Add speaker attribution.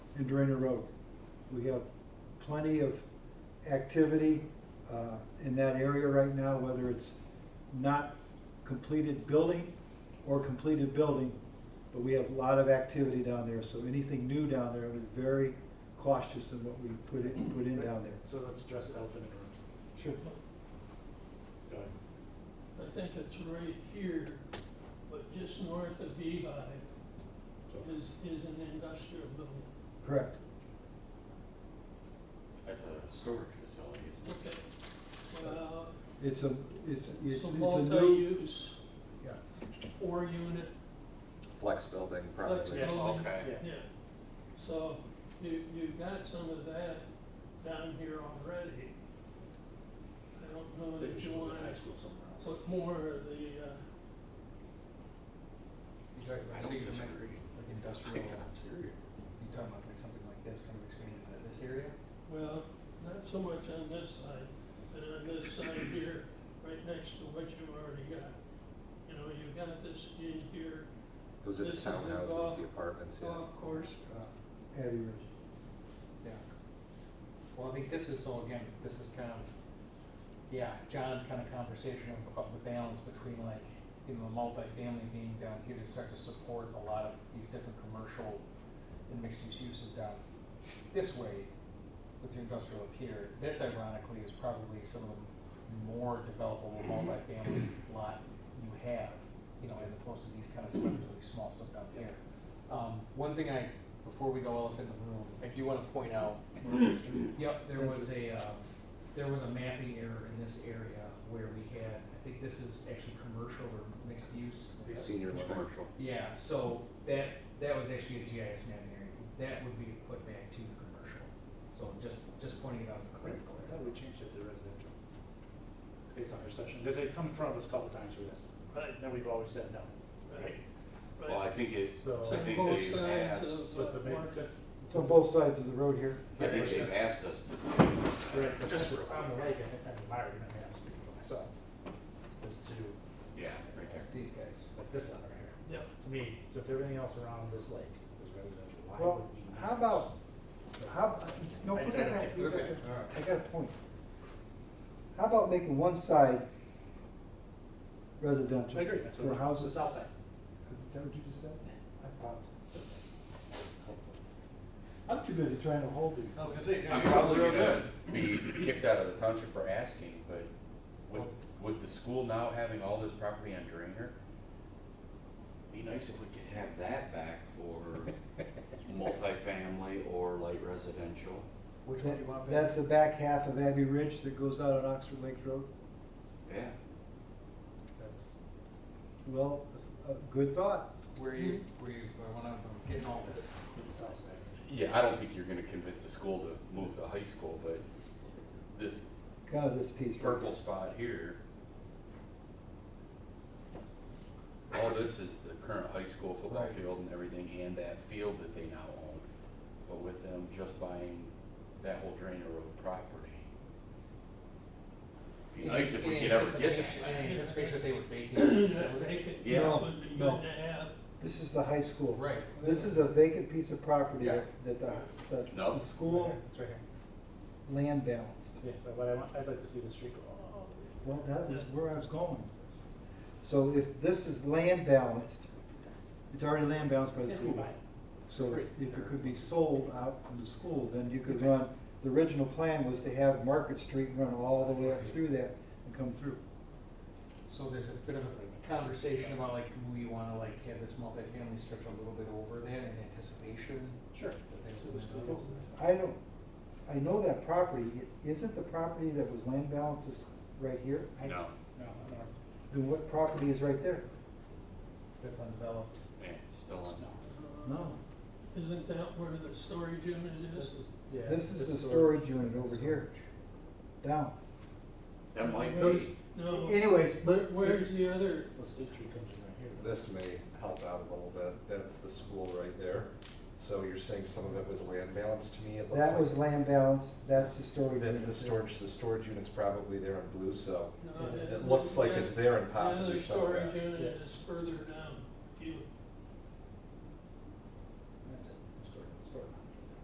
Speaker 1: and Drainer Road. We have plenty of activity uh, in that area right now, whether it's not completed building or completed building, but we have a lot of activity down there, so anything new down there, we're very cautious in what we put in, put in down there.
Speaker 2: So let's address the elephant in the room.
Speaker 1: Sure.
Speaker 2: Go ahead.
Speaker 3: I think it's right here, but just north of Beehive
Speaker 2: So-
Speaker 3: is, is an industrial building.
Speaker 1: Correct.
Speaker 4: That's a storage facility, isn't it?
Speaker 3: Okay. Well,
Speaker 1: It's a, it's, it's, it's
Speaker 3: it's a
Speaker 1: a new,
Speaker 3: multi-use,
Speaker 1: yeah,
Speaker 3: four-unit
Speaker 5: Flex building
Speaker 3: flex
Speaker 5: probably.
Speaker 2: Yeah.
Speaker 3: building.
Speaker 4: Okay.
Speaker 3: Yeah. So you, you've got some of that down here already. I don't know
Speaker 2: Maybe
Speaker 3: that
Speaker 2: we
Speaker 3: you
Speaker 2: should move
Speaker 3: wanna
Speaker 2: to high school somewhere else.
Speaker 3: put more of the, uh,
Speaker 6: You're talking
Speaker 4: I
Speaker 6: about, so
Speaker 4: don't
Speaker 6: you meant
Speaker 4: disagree.
Speaker 6: like industrial,
Speaker 4: I'm serious.
Speaker 6: you're talking about like something like this, kind of expanding into this area?
Speaker 3: Well, not so much on this side, but on this side here, right next to what you've already got. You know, you've got this in here,
Speaker 5: Those are the
Speaker 3: This is the
Speaker 5: townhouses,
Speaker 3: golf-
Speaker 5: the apartments, yeah.
Speaker 3: golf course,
Speaker 1: uh, Abbey Ridge.
Speaker 6: Yeah. Well, I think this is, so again, this is kind of, yeah, John's kind of conversation of, of the balance between like, you know, the multifamily being down here to start to support a lot of these different commercial and mixed-use uses down this way with your industrial up here. This ironically is probably some of the more developable multifamily lot you have, you know, as opposed to these kind of stuff, really small stuff down here. Um, one thing I, before we go elephant in the room, I do wanna point out, yep, there was a, uh, there was a mapping error in this area where we had, I think this is actually commercial or mixed use.
Speaker 5: Senior living.
Speaker 4: Commercial.
Speaker 6: Yeah, so that, that was actually a GIS mapping area, that would be put back to the commercial, so just, just pointing it out as a critical
Speaker 2: I thought
Speaker 6: error.
Speaker 2: we changed it to residential. Based on our session, because they've come in front of us a couple times for this, but then we've always said no, right?
Speaker 4: Well, I
Speaker 3: right?
Speaker 4: think it,
Speaker 2: So-
Speaker 4: I think
Speaker 3: Both
Speaker 4: they've
Speaker 3: sides
Speaker 4: asked,
Speaker 3: of,
Speaker 2: So
Speaker 3: uh,
Speaker 2: to make
Speaker 3: market.
Speaker 2: sense.
Speaker 1: It's on both sides of the road here.
Speaker 4: I think they've asked us to.
Speaker 2: Right, but just for- on the right, and and my argument, I'm speaking for myself, is to,
Speaker 4: Yeah, right there.
Speaker 6: These guys.
Speaker 2: like this lot right here.
Speaker 3: Yeah.
Speaker 2: To me, since everything else around this lake is residential, why
Speaker 1: Well,
Speaker 2: would we?
Speaker 1: how about, how, no, put that back, you got
Speaker 6: Okay,
Speaker 1: the-
Speaker 6: all right.
Speaker 1: I got a point. How about making one side residential?
Speaker 2: I agree, that's what.
Speaker 1: For houses.
Speaker 2: The south side.
Speaker 1: Is that what you just said? I popped. I'm too busy trying to hold these.
Speaker 6: I was gonna say,
Speaker 4: I'm probably gonna be kicked out of the township for asking, but with, with the school now having all this property on Drainer, be nice if we could have that back for multifamily or light residential.
Speaker 6: Which one do you want? Ben?
Speaker 1: That's the back half of Abbey Ridge that goes out on Oxford Lake Road.
Speaker 4: Yeah,
Speaker 2: That's-
Speaker 1: Well, that's a good thought.
Speaker 6: Where you, where you, where when I'm getting all this.
Speaker 2: The south side.
Speaker 4: yeah, I don't think you're gonna convince the school to move the high school, but this
Speaker 1: Kind of this piece. right
Speaker 4: purple spot here. All this is the current high school football
Speaker 6: Right.
Speaker 4: field and everything, and that field that they now own. But with them just buying that whole drainer road property. Be nice if we
Speaker 6: In
Speaker 4: could ever get
Speaker 6: anticipation-
Speaker 4: that.
Speaker 6: In anticipation that they would vacate this
Speaker 3: That
Speaker 6: facility.
Speaker 3: vacant
Speaker 4: Yeah.
Speaker 3: piece would be good
Speaker 1: No, no.
Speaker 3: to have.
Speaker 1: This is the high school.
Speaker 6: Right.
Speaker 1: This is a vacant piece of property
Speaker 6: Yeah.
Speaker 1: that that the, that
Speaker 4: No.
Speaker 1: the school
Speaker 6: It's right here.
Speaker 1: land balanced.
Speaker 2: But what I want, I'd like to see the street go all
Speaker 1: Well, that was where I was going with this. So if this is land balanced, it's already land balanced by the school. So if if it could be sold out from the school, then you could run, the original plan was to have Market Street run all the way up through that and come through.
Speaker 6: So there's a bit of a conversation about like, do we wanna like have this multifamily stretch a little bit over that in anticipation?
Speaker 2: Sure.
Speaker 6: that they
Speaker 2: That's
Speaker 6: would
Speaker 2: what the
Speaker 6: move
Speaker 2: school
Speaker 6: out?
Speaker 2: goes with.
Speaker 1: I don't, I know that property, It- isn't the property that was land balanced is right here? I-
Speaker 4: No,
Speaker 2: No, no, no.
Speaker 1: Then what property is right there?
Speaker 6: That's undeveloped.
Speaker 4: yeah, still on.
Speaker 1: No.
Speaker 3: Isn't that where the storage unit is?
Speaker 2: Yeah,
Speaker 1: This is the
Speaker 2: what-
Speaker 1: storage unit over here, down.
Speaker 4: That might
Speaker 3: Where's-
Speaker 4: be,
Speaker 3: No,
Speaker 1: Anyways,
Speaker 3: Where-
Speaker 1: but.
Speaker 3: where's the other,
Speaker 2: Well, State Street comes in right here. though.
Speaker 5: This may help out a little bit. That's the school right there. So you're saying some of it was land balance to me? It looks
Speaker 1: That
Speaker 5: like-
Speaker 1: was land balance, that's the storage unit.
Speaker 5: That's the storage, the storage unit's probably there in blue, so
Speaker 3: no,
Speaker 5: it looks like it's there and
Speaker 3: The other
Speaker 5: possibly
Speaker 3: storage
Speaker 5: somewhere.
Speaker 3: unit is further down.